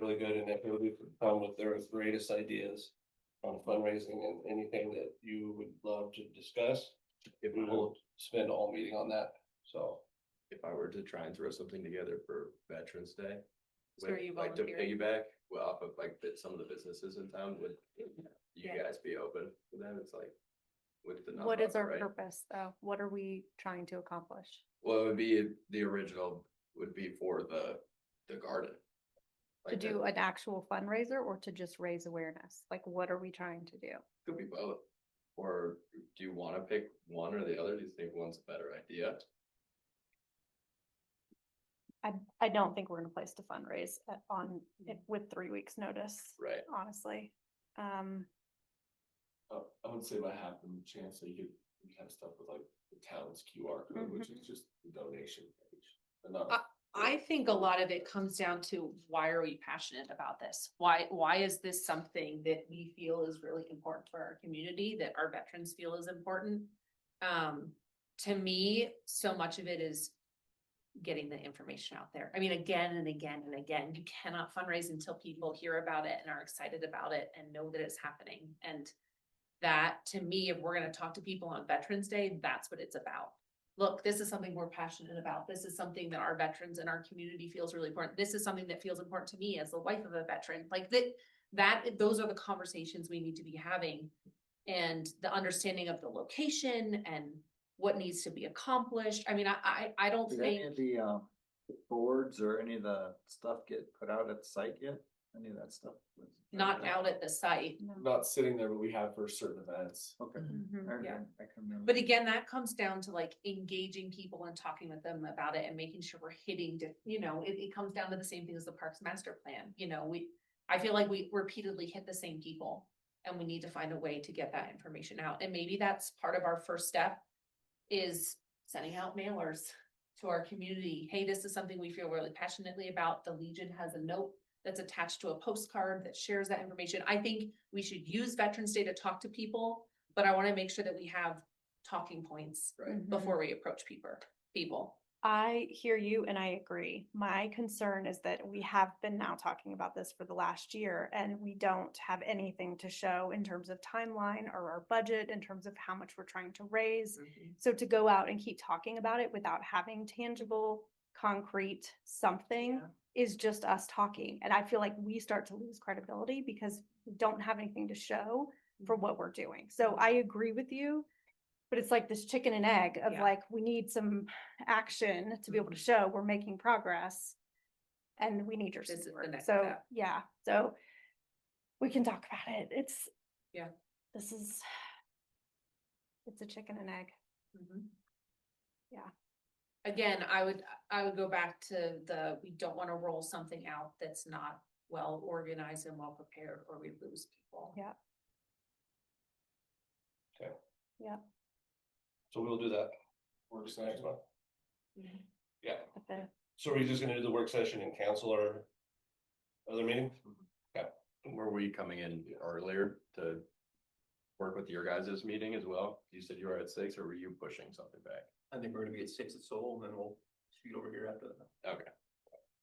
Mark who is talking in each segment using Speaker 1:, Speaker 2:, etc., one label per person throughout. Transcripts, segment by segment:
Speaker 1: really good and if you could come with their greatest ideas on fundraising and anything that you would love to discuss,
Speaker 2: If
Speaker 1: we
Speaker 2: I,
Speaker 3: Mm-hmm.
Speaker 2: were-
Speaker 1: will spend all meeting on that, so.
Speaker 2: if I were to try and throw something together for Veterans Day.
Speaker 3: So are
Speaker 2: with,
Speaker 3: you
Speaker 2: Like to
Speaker 3: volunteering?
Speaker 2: piggyback, well, off of like that some of the businesses in town would, you
Speaker 3: Yeah.
Speaker 2: guys be open for them, it's like. With the.
Speaker 3: What is
Speaker 2: nonprofit,
Speaker 3: our
Speaker 2: right?
Speaker 3: purpose though? What are we trying to accomplish?
Speaker 2: Well, it would be, the original would be for the, the garden.
Speaker 3: To
Speaker 2: Like, that
Speaker 3: do an actual fundraiser or to just raise awareness? Like, what are we trying to do?
Speaker 2: Could be both, or do you wanna pick one or the other, do you think one's a better idea?
Speaker 3: I, I don't think we're in a place to fundraise at- on, eh, with three weeks notice,
Speaker 2: Right.
Speaker 3: honestly. Um,
Speaker 2: Uh, I would say about half the chance that you could, you could have stuff with like the town's QR code,
Speaker 4: Mm-hmm.
Speaker 2: which is just the donation page. and not-
Speaker 4: I think a lot of it comes down to why are we passionate about this? Why, why is this something that we feel is really important for our community, that our veterans feel is important? Um, to me, so much of it is getting the information out there. I mean, again and again and again, you cannot fundraise until people hear about it and are excited about it and know that it's happening. And that, to me, if we're gonna talk to people on Veterans Day, that's what it's about look, this is something we're passionate about. This is something that our veterans and our community feels really important. This is something that feels important to me as the wife of a veteran, like that, that, those are the conversations we need to be having. And the understanding of the location and what needs to be accomplished. I mean, I, I, I don't
Speaker 5: Did any
Speaker 4: think,
Speaker 5: of the um boards or any of the stuff get put out at the site yet? Any of that stuff? was-
Speaker 4: not out at the site.
Speaker 3: no.
Speaker 6: not sitting there, but we have for certain events.
Speaker 5: Okay.
Speaker 3: Mm-hmm.
Speaker 5: I
Speaker 4: Yeah.
Speaker 5: remember- I can remember.
Speaker 4: But again, that comes down to like engaging people and talking with them about it and making sure we're hitting, diff- you know, it, it comes down to the same thing as the Parks Master Plan, you know, we. I feel like we repeatedly hit the same people and we need to find a way to get that information out. And maybe that's part of our first step. Is sending out mailers to our community. Hey, this is something we feel really passionately about. The Legion has a note that's attached to a postcard that shares that information. I think we should use Veterans Day to talk to people, but I want to make sure that we have talking points
Speaker 3: Mhm.
Speaker 4: before we approach people, people.
Speaker 3: I hear you and I agree. My concern is that we have been now talking about this for the last year and we don't have anything to show in terms of timeline or our budget, in terms of how much we're trying to raise. So to go out and keep talking about it without having tangible, concrete something
Speaker 4: Yeah.
Speaker 3: is just us talking. And I feel like we start to lose credibility because we don't have anything to show for
Speaker 4: Mm-hmm.
Speaker 3: what we're doing. So I agree with you. But it's like this chicken and egg of
Speaker 4: Yeah. Mm-hmm.
Speaker 3: like, we need some action to be able to show we're making progress. And we need your
Speaker 4: This is the
Speaker 3: support.
Speaker 4: next
Speaker 3: So,
Speaker 4: step.
Speaker 3: yeah, so we can talk about it. It's.
Speaker 4: Yeah.
Speaker 3: This is. It's a chicken and egg.
Speaker 4: Mhm.
Speaker 3: Yeah.
Speaker 4: Again, I would, I would go back to the, we don't wanna roll something out that's not well organized and well prepared, or we lose people.
Speaker 3: Yeah.
Speaker 1: So we'll do that.
Speaker 6: Work
Speaker 1: Next
Speaker 6: session.
Speaker 1: one. Yeah,
Speaker 3: but the-
Speaker 1: so we're just gonna do the work session and cancel our other meeting?
Speaker 2: Were we coming in earlier to work with your guys' meeting as well? You said you were at six, or were you pushing something back?
Speaker 7: I think we're gonna be at six at Seoul, and then we'll shoot over here after that.
Speaker 2: Okay.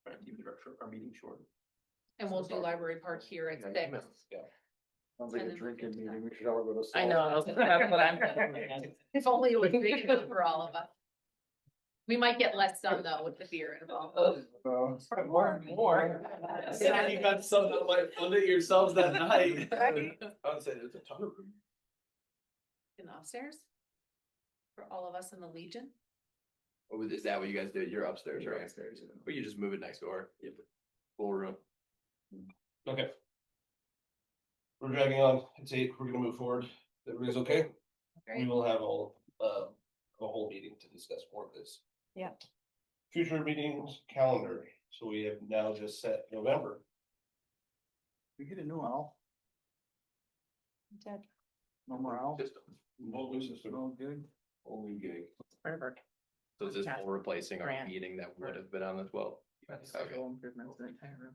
Speaker 7: Try and keep it our, our meeting short.
Speaker 4: And we'll do library park here at
Speaker 2: Yeah, you
Speaker 4: six.
Speaker 5: Sounds
Speaker 4: and
Speaker 5: like a
Speaker 4: then we
Speaker 5: drinking
Speaker 4: can do that.
Speaker 5: meeting. We should all go to.
Speaker 8: I know, that's what I'm thinking.
Speaker 4: If only it was big enough for all of us. We might get less done though with the beer involved.
Speaker 5: Sal's.
Speaker 8: More and more.
Speaker 6: You got
Speaker 1: Oh,
Speaker 6: some that might limit yourselves that night.
Speaker 2: I would say there's a ton of room.
Speaker 4: In the upstairs? For all of us in the Legion?
Speaker 2: Oh, is that what you guys do? You're upstairs,
Speaker 7: You're
Speaker 2: right?
Speaker 7: upstairs, you know.
Speaker 2: Or you just move it next door? Yep. Full room.
Speaker 1: Okay. We're dragging on, it's eight, we're gonna move forward, everybody's okay? We
Speaker 4: Great.
Speaker 1: will have all, uh, a whole meeting to discuss more of this.
Speaker 3: Yeah.
Speaker 1: Future meetings calendar, so we have now just set November,
Speaker 5: We get a new owl,
Speaker 3: Dead.
Speaker 5: no more owl.
Speaker 2: Just-
Speaker 1: Won't lose this one.
Speaker 5: No good.
Speaker 1: only gig.
Speaker 8: Forever.
Speaker 2: So is this
Speaker 8: Task
Speaker 2: all replacing our
Speaker 8: grant.
Speaker 2: meeting that would have been on the twelfth? Okay.
Speaker 5: Go improvements in the entire room.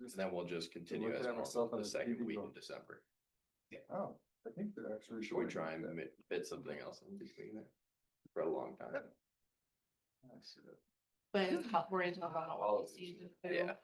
Speaker 2: And then we'll just continue
Speaker 5: look
Speaker 2: as
Speaker 5: at
Speaker 2: normal
Speaker 5: ourselves
Speaker 2: the
Speaker 5: on the
Speaker 2: second
Speaker 5: TV
Speaker 2: week in
Speaker 5: book.
Speaker 2: December.
Speaker 5: Oh, I think they're actually.
Speaker 2: Should we
Speaker 5: shorting
Speaker 2: try and
Speaker 5: that.
Speaker 2: mi- fit something else in between there? For a long time.
Speaker 5: I see that.
Speaker 8: But we're into the holiday
Speaker 2: Yeah,